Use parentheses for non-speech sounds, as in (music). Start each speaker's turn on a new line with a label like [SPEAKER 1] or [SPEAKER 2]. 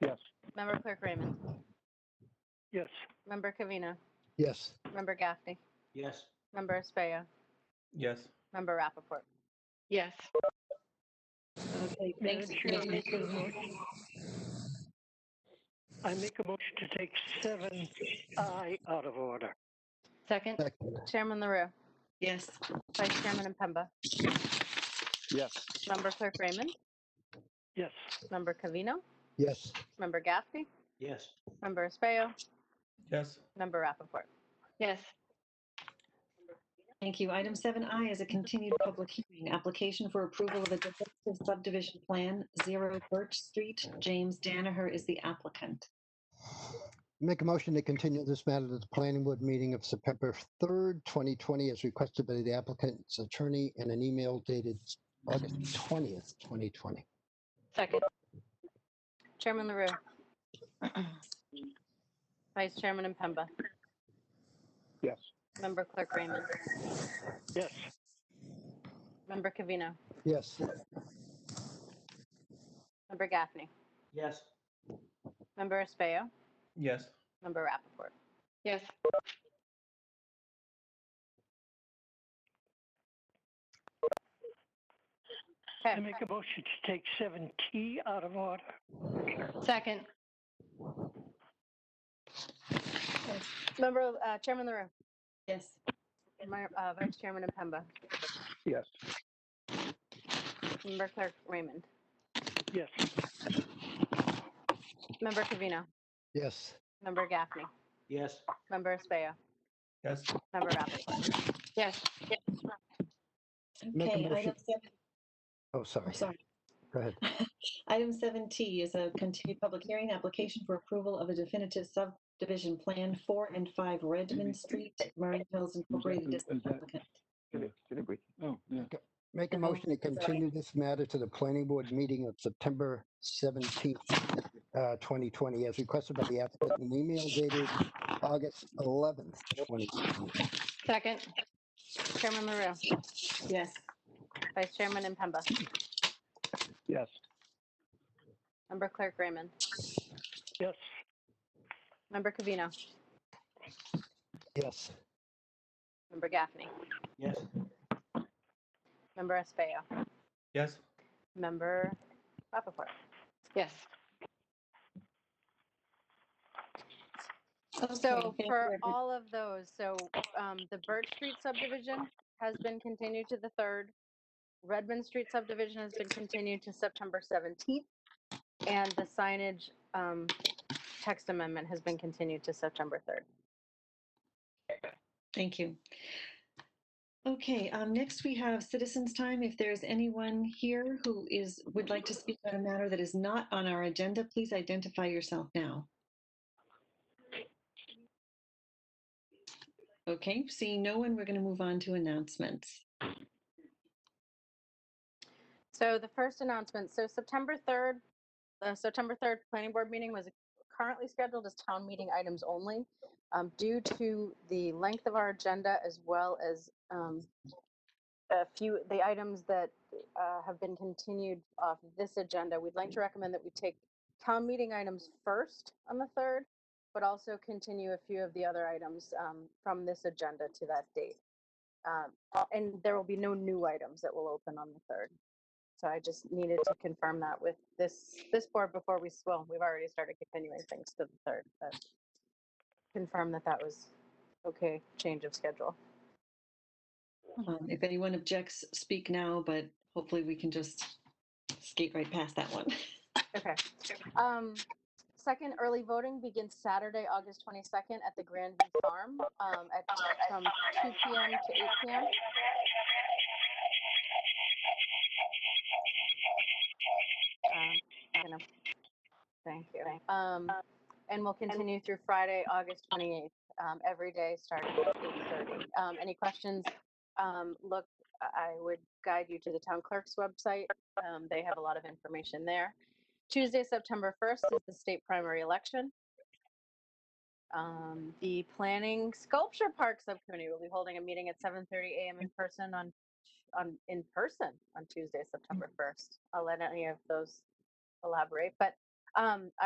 [SPEAKER 1] Yes.
[SPEAKER 2] Member Clerk Raymond.
[SPEAKER 1] Yes.
[SPEAKER 2] Member Covino.
[SPEAKER 3] Yes.
[SPEAKER 2] Member Gaffney.
[SPEAKER 4] Yes.
[SPEAKER 2] Member Españo.
[SPEAKER 4] Yes.
[SPEAKER 2] Member Rappaport.
[SPEAKER 5] Yes.
[SPEAKER 1] Okay,
[SPEAKER 5] Thanks,
[SPEAKER 1] Madam Chair, I
[SPEAKER 5] Commissioner.
[SPEAKER 1] make a motion- I make a motion to take seven I out of order.
[SPEAKER 5] Second?
[SPEAKER 3] Second.
[SPEAKER 2] Chairman LaRue.
[SPEAKER 5] Yes.
[SPEAKER 2] Vice Chairman Impemba.
[SPEAKER 3] Yes.
[SPEAKER 2] Member Clerk Raymond.
[SPEAKER 1] Yes.
[SPEAKER 2] Member Covino.
[SPEAKER 3] Yes.
[SPEAKER 2] Member Gaffney.
[SPEAKER 4] Yes.
[SPEAKER 2] Member Españo.
[SPEAKER 4] Yes.
[SPEAKER 2] Member Rappaport.
[SPEAKER 5] Yes.
[SPEAKER 6] Thank you. Item 7I is a continued public hearing, application for approval of a definitive subdivision plan, 0 Birch Street. James Danaher is the applicant.
[SPEAKER 3] Make a motion to continue this matter to the planning board meeting of September 3rd, 2020, as requested by the applicant's attorney in an email dated August 20th, 2020.
[SPEAKER 5] Second?
[SPEAKER 2] Chairman LaRue. Vice Chairman Impemba.
[SPEAKER 1] Yes.
[SPEAKER 2] Member Clerk Raymond.
[SPEAKER 1] Yes.
[SPEAKER 2] Member Covino.
[SPEAKER 3] Yes.
[SPEAKER 2] Member Gaffney.
[SPEAKER 4] Yes.
[SPEAKER 2] Member Españo.
[SPEAKER 4] Yes.
[SPEAKER 2] Member Rappaport.
[SPEAKER 5] Yes.
[SPEAKER 1] I
[SPEAKER 2] Okay,
[SPEAKER 1] make a motion to take seven T out of order.
[SPEAKER 5] Second?
[SPEAKER 2] Member, uh, Chairman LaRue.
[SPEAKER 6] Yes.
[SPEAKER 2] My, uh, Vice Chairman Impemba.
[SPEAKER 1] Yes.
[SPEAKER 2] Member Clerk Raymond.
[SPEAKER 1] Yes.
[SPEAKER 2] Member Covino.
[SPEAKER 3] Yes.
[SPEAKER 2] Member Gaffney.
[SPEAKER 4] Yes.
[SPEAKER 2] Member Españo.
[SPEAKER 4] Yes.
[SPEAKER 2] Member Rappaport.
[SPEAKER 5] Yes.
[SPEAKER 3] Make a
[SPEAKER 6] Okay,
[SPEAKER 3] motion-
[SPEAKER 6] item 7,
[SPEAKER 3] Oh,
[SPEAKER 6] I'm
[SPEAKER 3] sorry.
[SPEAKER 6] sorry.
[SPEAKER 3] Go ahead.
[SPEAKER 6] (laughs) Item 7T is a continued public hearing, application for approval of a definitive subdivision plan, 4 and 5 Redmond Street. Murray Hills Incorporated is the applicant.
[SPEAKER 3] Make a
[SPEAKER 6] Mhm.
[SPEAKER 3] motion to continue this matter to the planning board meeting of September 17th, uh, 2020, as requested by the applicant in an email dated August 11th, 2020.
[SPEAKER 5] Second?
[SPEAKER 2] Chairman LaRue.
[SPEAKER 6] Yes.
[SPEAKER 2] Vice Chairman Impemba.
[SPEAKER 1] Yes.
[SPEAKER 2] Member Clerk Raymond.
[SPEAKER 1] Yes.
[SPEAKER 2] Member Covino.
[SPEAKER 3] Yes.
[SPEAKER 2] Member Gaffney.
[SPEAKER 4] Yes.
[SPEAKER 2] Member Españo.
[SPEAKER 4] Yes.
[SPEAKER 2] Member Rappaport.
[SPEAKER 5] Yes.
[SPEAKER 2] So
[SPEAKER 6] Okay, thank
[SPEAKER 2] for
[SPEAKER 6] you, everyone.
[SPEAKER 2] all of those, so um, the Birch Street subdivision has been continued to the 3rd. Redmond Street subdivision has been continued to September 17th. And the signage um, text amendment has been continued to September 3rd.
[SPEAKER 6] Thank you. Okay, um, next we have citizens' time. If there's anyone here who is, would like to speak on a matter that is not on our agenda, please identify yourself now. Okay, seeing no one, we're going to move on to announcements. Um,
[SPEAKER 2] So the first announcement, so September 3rd, the September 3rd planning board meeting was currently scheduled as town meeting items only. Um, Due to the length of our agenda as well as um, a few, the items that uh, have been continued off this agenda, we'd like to recommend that we take town meeting items first on the 3rd, but also continue a few of the other items um, from this agenda to that date. Um, uh, And there will be no new items that will open on the 3rd. So I just needed to confirm that with this, this board before we, s- well, we've already started continuing things to the third, but confirm that that was okay, change of schedule.
[SPEAKER 6] Um, if anyone objects, speak now, but hopefully we can just skate right past that one.
[SPEAKER 2] Okay. Um, second, early voting begins Saturday, August 22nd at the Grandview Farm, um, at, from 2 PM to 8 PM. Um, I'm gonna- Thank you. Um, and we'll continue through Friday, August 28th, um, every day starting at 8:30. Um, any questions? Um, look, I I would guide you to the town clerk's website. Um, they have a lot of information there. Tuesday, September 1st is the state primary election. Um, the Planning Sculpture Park Subcommittee will be holding a meeting at 7:30 a.m. in person on on in person on Tuesday, September 1st. I'll let any of those elaborate, but um,